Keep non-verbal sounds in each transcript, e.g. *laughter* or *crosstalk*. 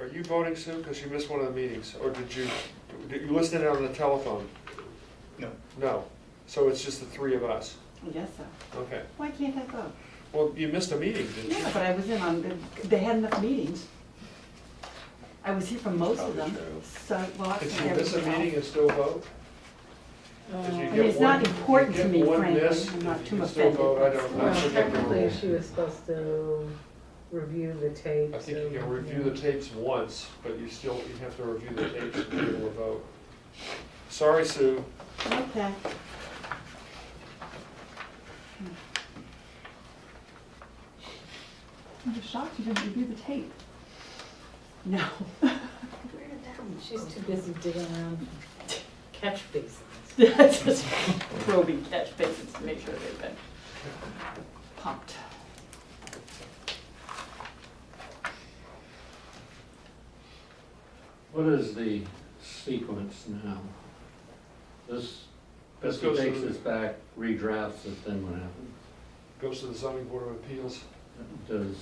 Are you voting, Sue? Because you missed one of the meetings, or did you, did you listen in on the telephone? No. No, so it's just the three of us, I guess so. okay. Why can't I vote? Well, you missed a meeting, didn't you? Yeah, but I was in on, the- they had enough meetings. I was here for most of them, Probably true. so, well, I Did think you miss a everything else. meeting and still vote? Did you Um, I mean, get it's not one- important you to get me, one frankly. miss, I'm not you too can still vote. I offended. don't, I Well, forget the technically, rules. she was supposed to review the tapes. I think you can and- review the tapes once, but you still, you have to review the tapes to be able to vote. Sorry, Sue. Okay. I'm just shocked you didn't review the tape. No. *laughs* She's too busy digging around catch basins. That's just probing catch basins to make sure they've been pumped. What is the sequence now? This, This Betsy goes takes to- this back, redrafts it, then what happens? Goes to the zoning board of appeals. Does,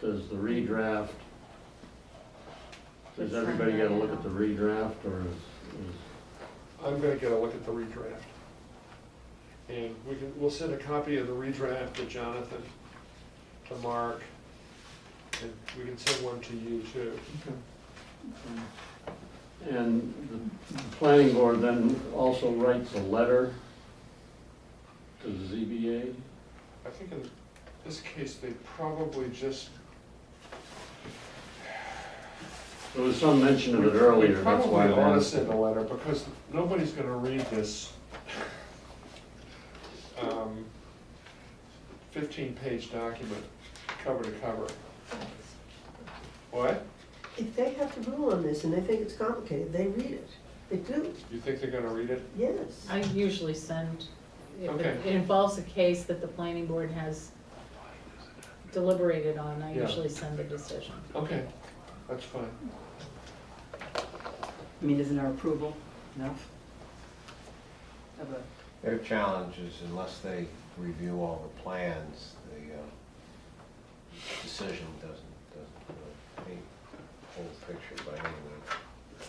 does the redraft, It's does everybody on get a there look at now. the redraft, or is, is I'm gonna get a look at the redraft. And we can, we'll send a copy of the redraft to Jonathan, to Mark, and we can send one to you too. And the- the planning board then also writes a letter to the ZBA? I think in this case, they probably just. There was some mention of it We- earlier, that's why We I'm probably ought to asking. send a letter, because nobody's gonna read this um, fifteen-page document, cover to cover. What? If they have to rule on this and they think it's complicated, they read it. They do, You think they're gonna read it? yes. I usually send, if it- Okay. it involves a case that the planning board has deliberated on, I Yeah. usually send the decision. Okay, that's fine. I mean, isn't our approval enough? Of a- Their challenge is unless they review all the plans, the uh, decision doesn't, doesn't really paint the whole picture by any means.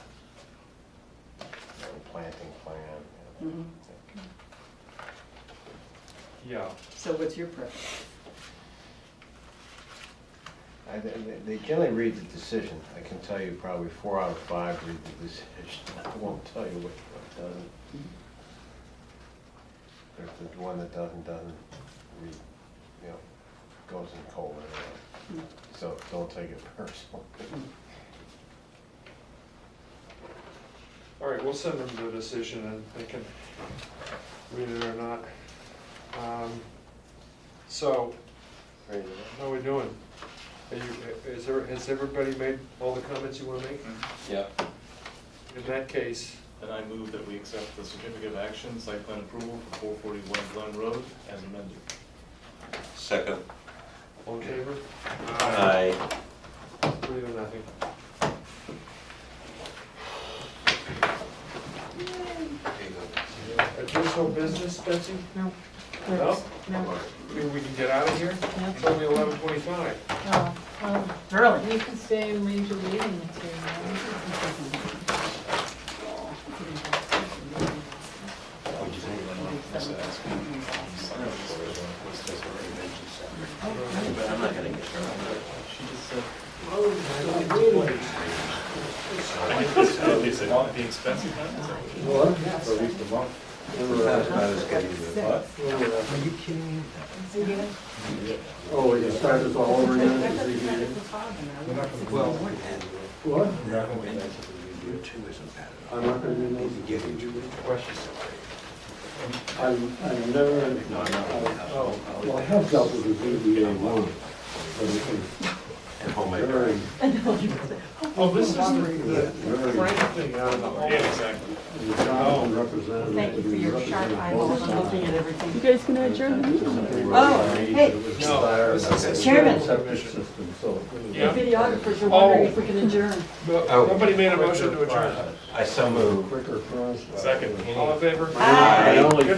No planting plan. you know, Mhm. that- Yeah. So what's your preference? I, they- they- they generally read the decision. I can tell you probably four out of five read the decision. *laughs* I won't tell you which one doesn't. There's the one that doesn't, doesn't read, you know, goes in cold anyway. So don't take it *laughs* personal. Mm. All right, we'll send them the decision and they can read it or not. Um, So, Read it. how are we doing? Are you, is there, has everybody made all the comments you wanna make? Yeah. In that case, Then I move that we accept the certificate of action, site plan approval for four forty-one Glen Road as *laughs* amended. Second. all in favor? Aye. Three to nothing. Additional business, Betsy? No. No? No, Maybe we can get out of here? no. It's only eleven twenty-five. Oh, well, Really? You can stay and read your reading material. I think this is- is it not the expensive one? Is that what it is? Well, for at least a month. Are you kidding me? Oh, you start this all over again at the ZBA? Well, What? you two isn't bad. I'm not gonna do those. Give you questions. I'm, I'm never, No, no. oh, well, I have dealt with the ZBA one, but it was And homemade. very, Well, Oh, this is the very, Frank thing out of the whole. Yeah, exactly. the town representative. Thank you for your sharp eyeballs on looking at everything. guys gonna adjourn Oh, hey. No, this is- Chairman. System, so. The Yeah. videographers are wondering if we can adjourn. No, Nobody made a motion to adjourn. I so move. Quicker for us. Second. All in favor? Aye. I only Good